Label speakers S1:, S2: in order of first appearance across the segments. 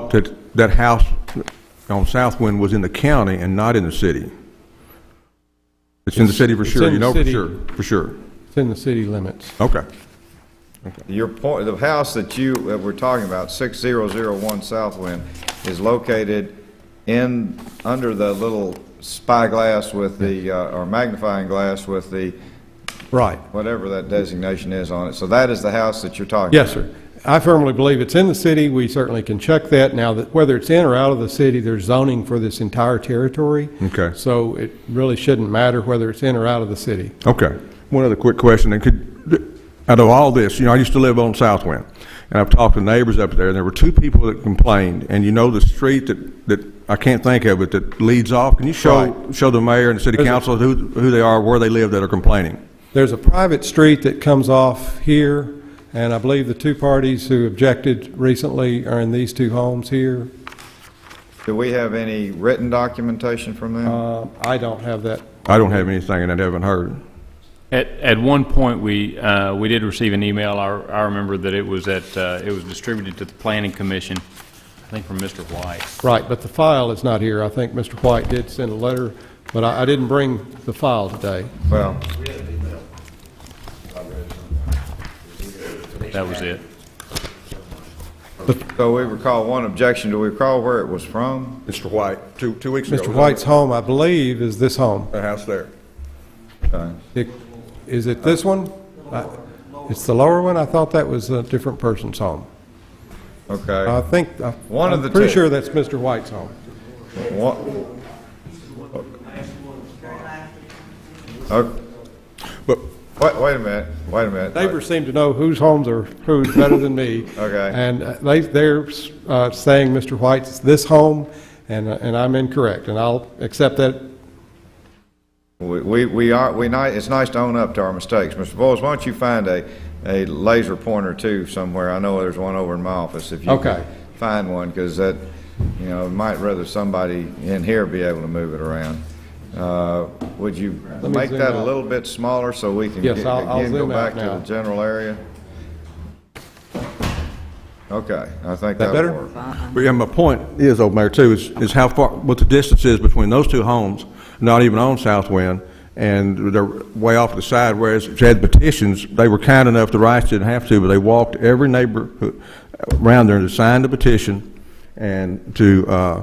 S1: thought that that house on Southwind was in the county and not in the city. It's in the city for
S2: It's
S1: sure,
S2: in
S1: you
S2: the
S1: know for
S2: city.
S1: sure, for sure.
S2: It's in the city limits.
S1: Okay.
S3: Your point, the house that you that we're talking about, 6001 Southwind, is located in, under the little spyglass with the, uh, or magnifying glass with the,
S2: Right.
S3: whatever that designation is on it. So that is the house that you're talking about?
S2: Yes, sir. I firmly believe it's in the city. We certainly can check that. Now, that whether it's in or out of the city, there's zoning for this entire territory.
S1: Okay.
S2: So it really shouldn't matter whether it's in or out of the city.
S1: Okay. One other quick question, and could, out of all this, you know, I used to live on Southwind, and I've talked to neighbors up there, and there were two people that complained, and you know the street that, that, I can't think of it, that leads off? Can you show, show the mayor and the city
S2: There's a-
S1: council who, who they are, where they live that are complaining?
S2: There's a private street that comes off here, and I believe the two parties who objected recently are in these two homes here.
S3: Do we have any written documentation from them?
S2: Uh, I don't have that.
S1: I don't have anything, and I haven't heard.
S4: At, at one point, we, uh, we did receive an email, I, I remember that it was at, uh, it was distributed to the planning commission, I think from Mr. White.
S2: Right, but the file is not here. I think Mr. White did send a letter, but I I didn't bring the file today.
S3: Well,
S4: That was it.
S3: so we recall one objection. Do we recall where it was from?
S1: Mr. White, two, two weeks ago.
S2: Mr. White's home, I believe, is this home.
S1: The house there.
S3: Okay.
S2: It- Is it this one? I- It's the lower one? I thought that was a different person's home. I
S3: Okay.
S2: think, I-
S3: One of
S2: I'm
S3: the
S2: pretty
S3: two.
S2: sure that's Mr. White's home.
S3: One- Okay.
S1: But,
S3: uh, Wait, wait a minute, wait a minute.
S2: Neighbors seem to know whose homes are whose better than me.
S3: Okay.
S2: And uh, they, they're uh, saying Mr. White's this home, and, uh, and I'm incorrect, and I'll accept that.
S3: We, we- we are, we, ni- it's nice to own up to our mistakes. Mr. Boyles, why don't you find a, a laser pointer too somewhere? I know there's one over in my office if you
S2: Okay.
S3: can find one, because that, you know, might rather somebody in here be able to move it around. Uh, Would you
S2: me
S3: make
S2: zoom
S3: that a
S2: out.
S3: little bit smaller so we can
S2: Yes,
S3: get-
S2: I'll- I'll
S3: again go
S2: zoom out
S3: back to the
S2: now.
S3: general area? Okay, I think
S2: That
S3: that'll
S2: better?
S3: work.
S1: but yeah, my point is, old mayor, too, is, is how far, what the distance is between those two homes, not even on Southwind, and they're way off to the side, whereas if you had petitions, they were kind enough, the Rice didn't have to, but they walked every neighbor who- around there to sign the petition and to, uh,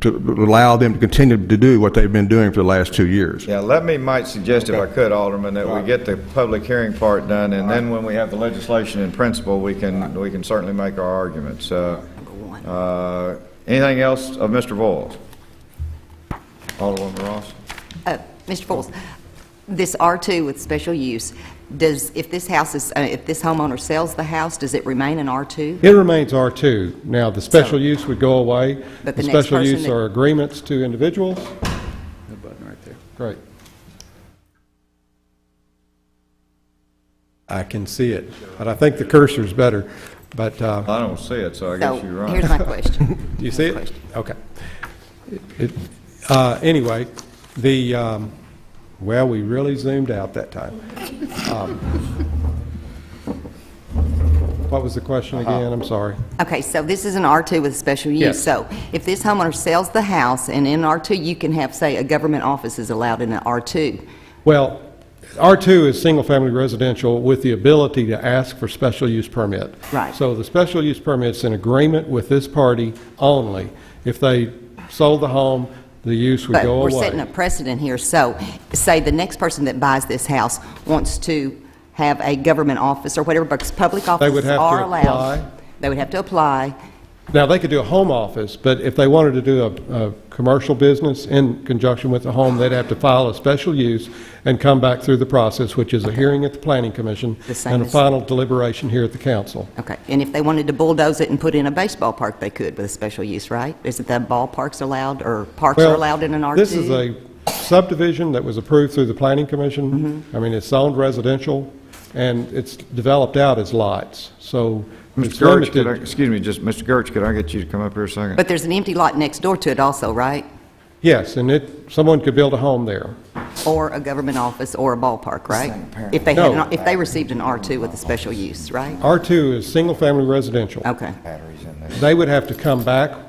S1: to allow them to continue to do what they've been doing for the last two years.
S3: Yeah, let me, might suggest if I could, Alderman, that we get the public hearing part done, and then when we have the legislation in principle, we can, we can certainly make our arguments. Uh, uh, Anything else of Mr. Voyles? Alderman Ross?
S5: Uh, Mr. Foles, this R2 with special use, does, if this house is, uh, if this homeowner sells the house, does it remain an R2?
S2: It remains R2. Now, the special use would go away.
S5: But the next
S2: special
S5: person
S2: use
S5: that-
S2: are agreements to individuals. That button right there. Great. I can see it, but I think the cursor's better, but, uh,
S3: I don't see it, so I
S5: So,
S3: guess you're right.
S5: here's my question.
S2: Do you see it?
S5: Question.
S2: Okay. It- uh, Anyway, the, um, well, we really zoomed out that time. Um, What was the question again? I'm sorry.
S5: Okay, so this is an R2 with special use.
S2: Yes.
S5: So if this homeowner sells the house, and in R2, you can have, say, a government office is allowed in an R2.
S2: Well, R2 is single-family residential with the ability to ask for special use permit.
S5: Right.
S2: So the special use permit's in agreement with this party only. If they sold the home, the use would
S5: But
S2: go away.
S5: we're setting a precedent here, so say the next person that buys this house wants to have a government office or whatever, because public
S2: would
S5: offices
S2: have to
S5: are
S2: apply.
S5: allowed. They would have to apply.
S2: Now, they could do a home office, but if they wanted to do a, a commercial business in conjunction with the home, they'd have to file a special use and come back through the process, which is a hearing at the planning commission
S5: The same
S2: and a
S5: as-
S2: final deliberation here at the council.
S5: Okay, and if they wanted to bulldoze it and put in a baseball park, they could with a special use, right? Isn't that ballparks allowed, or parks are
S2: Well,
S5: allowed in an R2?
S2: This is a subdivision that was approved through the planning commission.
S5: Mm-hmm.
S2: I mean, it's zoned residential, and it's developed out as lots, so
S3: Mr.
S2: it's
S3: Gertz, could I,
S2: limited.
S3: excuse me, just, Mr. Gertz, could I get you to come up here a second?
S5: But there's an empty lot next door to it also, right?
S2: Yes, and it, someone could build a home there.
S5: Or a government office or a ballpark, right? If they had,
S2: No.
S5: an- if they received an R2 with a special use, right? Oh.
S2: R2 is single-family residential.
S5: Okay.
S2: They would have to come back